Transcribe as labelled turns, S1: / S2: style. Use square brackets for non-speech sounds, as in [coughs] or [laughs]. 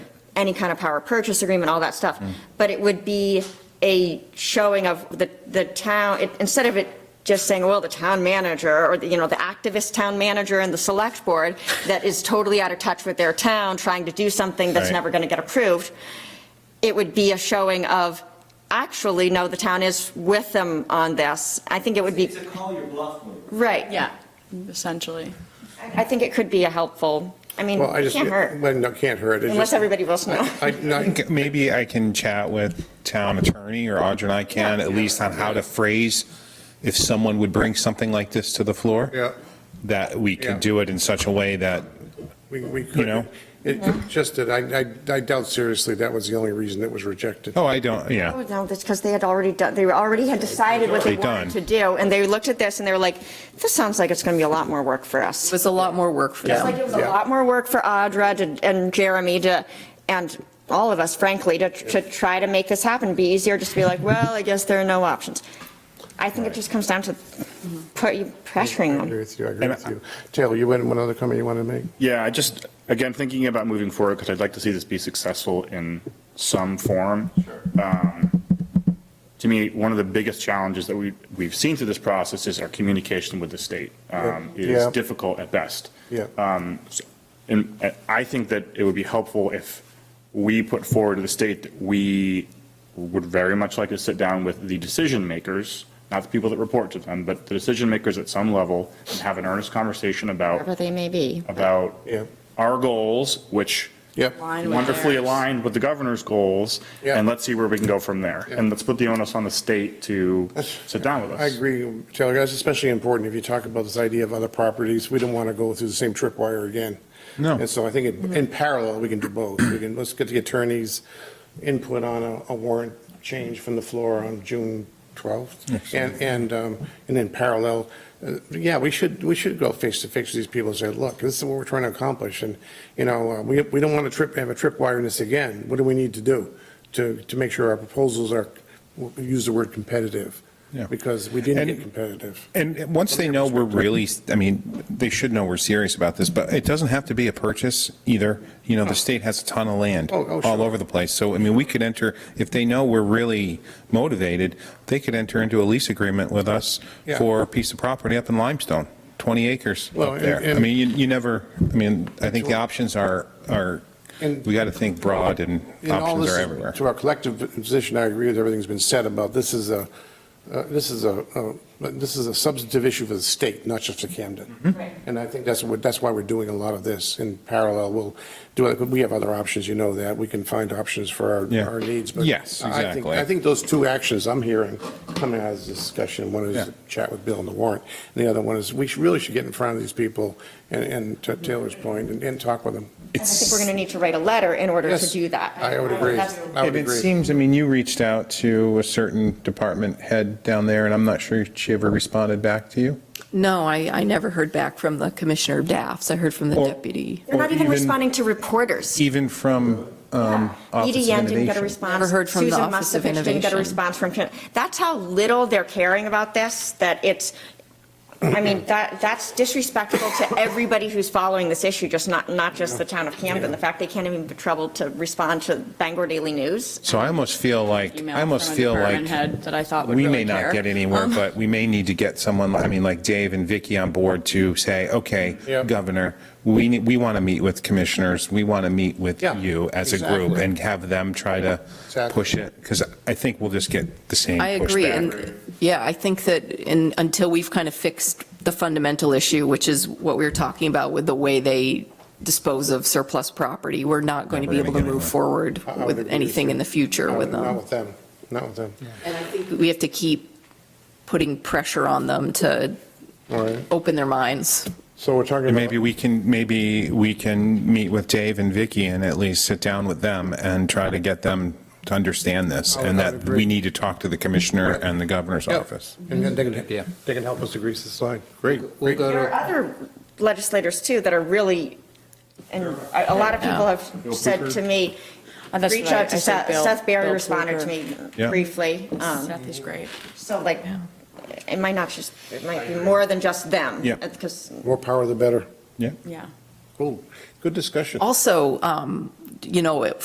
S1: any kind of power purchase agreement, all that stuff. But it would be a showing of the, the town, it- instead of it just saying, well, the town manager, or, the you know, the activist town manager and the select board that is totally out of touch with their town, trying to do something that's
S2: Right.
S1: never going to get approved, it would be a showing of, actually, no, the town is with them on this. I think it would be,
S3: It's a call your bluff move.
S1: right.
S4: Yeah, essentially.
S1: I think it could be a helpful, I mean,
S5: Well, I
S1: it
S5: just,
S1: can't hurt,
S5: well, no, can't hurt. It
S1: unless
S5: just-
S1: everybody votes no.
S5: I,
S1: [laughs]
S5: no,
S2: think maybe I can chat with town attorney or Audra and I can, at least on how to phrase if someone would bring something like this to the floor.
S5: Yeah.
S2: That we could
S5: Yeah.
S2: do it in such a way that,
S5: we, we could.
S2: You know?
S5: It just that I, I- I doubt seriously that was the only reason it was rejected.
S2: oh, I don't, yeah.
S1: Oh, No, that's because they had already done, they already had decided what they
S2: They'd done.
S1: wanted to do, and they looked at this and they were like, this sounds like it's going to be a lot more work for us.
S4: It was a lot more work for them.
S1: Like, it was a
S5: Yeah.
S1: lot more work for Audra to- and Jeremy to, and all of us, frankly, to, to try to make this happen, It'd be easier just to be like, well, I guess there are no options. I think it just comes down to put, you pressuring
S5: I Mm-hmm. agree
S1: them.
S5: with you, I agree with you. Taylor, you had one other comment you wanted to make?
S6: Yeah, I just, again, thinking about moving forward, because I'd like to see this be successful in some form. Um, To me, one of the biggest challenges that we, we've seen through this process is our communication with the state um, is
S5: Yeah.
S6: difficult at best.
S5: Yeah.
S2: Uh,
S6: Um, so- And uh, I think that it would be helpful if we put forward to the state that we would very much like to sit down with the decision makers, not the people that report to them, but the decision makers at some level, and have an earnest conversation about
S1: Whatever they may be.
S6: about
S5: Yeah.
S6: our goals, which
S5: Yep.
S4: Line with
S6: wonderfully
S4: theirs.
S6: aligned with the governor's goals,
S5: Yeah.
S6: and let's see where we can go from there. And let's put the onus on the state to sit down with us.
S5: I agree, Taylor, that's especially important if you talk about this idea of other properties. We don't want to go through the same tripwire again.
S2: No.
S5: And so I think it- in parallel, we can do both. We can, let's get the attorney's input on a- a warrant change from the floor on June 12th. And, and, um, and in parallel, uh, yeah, we should, we should go face to face with these people and say, look, this is what we're trying to accomplish. And, you know, uh, we, we don't want to trip, have a tripwire in this again. What do we need to do to, to make sure our proposals are, we'll use the word competitive?
S2: Yeah.
S5: Because we didn't get
S2: And-
S5: competitive.
S2: And once they know we're really, I mean, they should know we're serious about this, but it doesn't have to be a purchase either. You know, the state has a ton of land
S5: Oh, oh,
S2: all
S5: sure.
S2: over the place. So, I mean, we could enter, if they know we're really motivated, they could enter into a lease agreement with us
S5: Yeah.
S2: for a piece of property up in Limestone, 20 acres
S5: Well,
S2: up there.
S5: and- and-
S2: I mean, you, you never, I mean, I think the options are, are,
S5: And-
S2: we got to think broad and
S5: In all
S2: options
S5: this,
S2: are everywhere.
S5: To our collective position, I agree with everything's been said about this is a, uh, this is a, uh, this is a substantive issue for the state, not just for
S1: Mm-hmm.
S5: Camden. And I think that's what, that's why we're doing a lot of this in parallel. We'll do it, we have other options, you know that. We can find options for
S2: Yeah.
S5: our, our needs. but
S2: Yes,
S5: I think-
S2: exactly.
S5: I think those two actions I'm hearing coming out of this discussion, one
S2: Yeah.
S5: is chat with Bill on the warrant, and the other one is we should- really should get in front of these people and, and to Taylor's point, and, and talk with them.
S1: And I think we're going to need to write a letter in order to
S5: Yes,
S1: do that.
S5: I would agree.
S1: That's-
S5: I would
S2: And it
S5: agree.
S2: seems, I mean, you reached out to a certain department head down there, and I'm not sure she ever responded back to you.
S4: No, I, I never heard back from the Commissioner of Daffs. I heard from the
S2: Or-
S4: deputy.
S1: They're not
S2: Or
S1: even responding to reporters.
S2: Even from um,
S1: Edie
S2: Office of
S1: Yan didn't get a
S2: Innovation.
S1: response.
S4: Never heard from the Office of
S1: Susan Musovich didn't get a
S4: Innovation.
S1: response from, that's how little they're caring about this, that it's, I
S2: [coughs]
S1: mean, that, that's disrespectful to everybody who's following this issue, just not, not just the town of Camden. The fact they can't even be troubled to respond to Bangor Daily News.
S2: So I almost feel like,
S4: Email
S2: I almost
S4: from a
S2: feel
S4: department
S2: like
S4: head that I thought would
S2: we
S4: really
S2: may not
S4: care.
S2: get anywhere,
S4: Um,
S2: but we may need to get someone, I mean, like Dave and Vicky on board to say, okay,
S5: Yeah.
S2: Governor, we, need- we want to meet with commissioners, we want to meet with
S5: Yeah,
S2: you as a group,
S5: exactly.
S2: and have them try to
S5: Exactly.
S2: push it, because I think we'll just get the same
S4: I agree,
S2: pushback.
S4: and, yeah, I think that in, until we've kind of fixed the fundamental issue, which is what we were talking about with the way they dispose of surplus property, we're not going to
S2: Never
S4: be able to
S2: gonna get
S4: move
S2: anywhere.
S4: forward
S5: I- I would
S4: with
S5: agree
S4: anything
S5: you.
S4: in the future
S5: Not
S4: with
S5: Not
S4: them.
S5: with them, not with them.
S4: And I think we have to keep putting pressure on them to
S5: All right,
S4: open their minds.
S5: so we're talking
S2: And
S5: about.
S2: maybe we can, maybe we can meet with Dave and Vicky and at least sit down with them and try to get them to understand this,
S5: I would-
S2: and
S5: I would
S2: that
S5: agree.
S2: we need to talk to the commissioner and the governor's
S5: Yeah.
S2: office.
S5: And then they can,
S7: Yeah.
S5: they can help us to grease the slide.
S7: Great. We'll go
S1: There are
S7: to,
S1: other legislators too that are really, and a a lot of people have said to me,
S4: Oh, that's
S1: reach
S4: what I- I
S1: out to
S4: said
S1: Seth,
S4: Bill-
S1: Seth Barry
S4: Bill
S1: responded to me
S4: Kluger.
S2: Yeah.
S1: briefly. um,
S4: is great.
S1: So like, it might not just, it might be more than just them. Uh,
S2: Yeah.
S1: Because
S5: More power, the better.
S2: Yeah.
S4: Yeah.
S5: Cool, good discussion.
S4: Also, um, you know,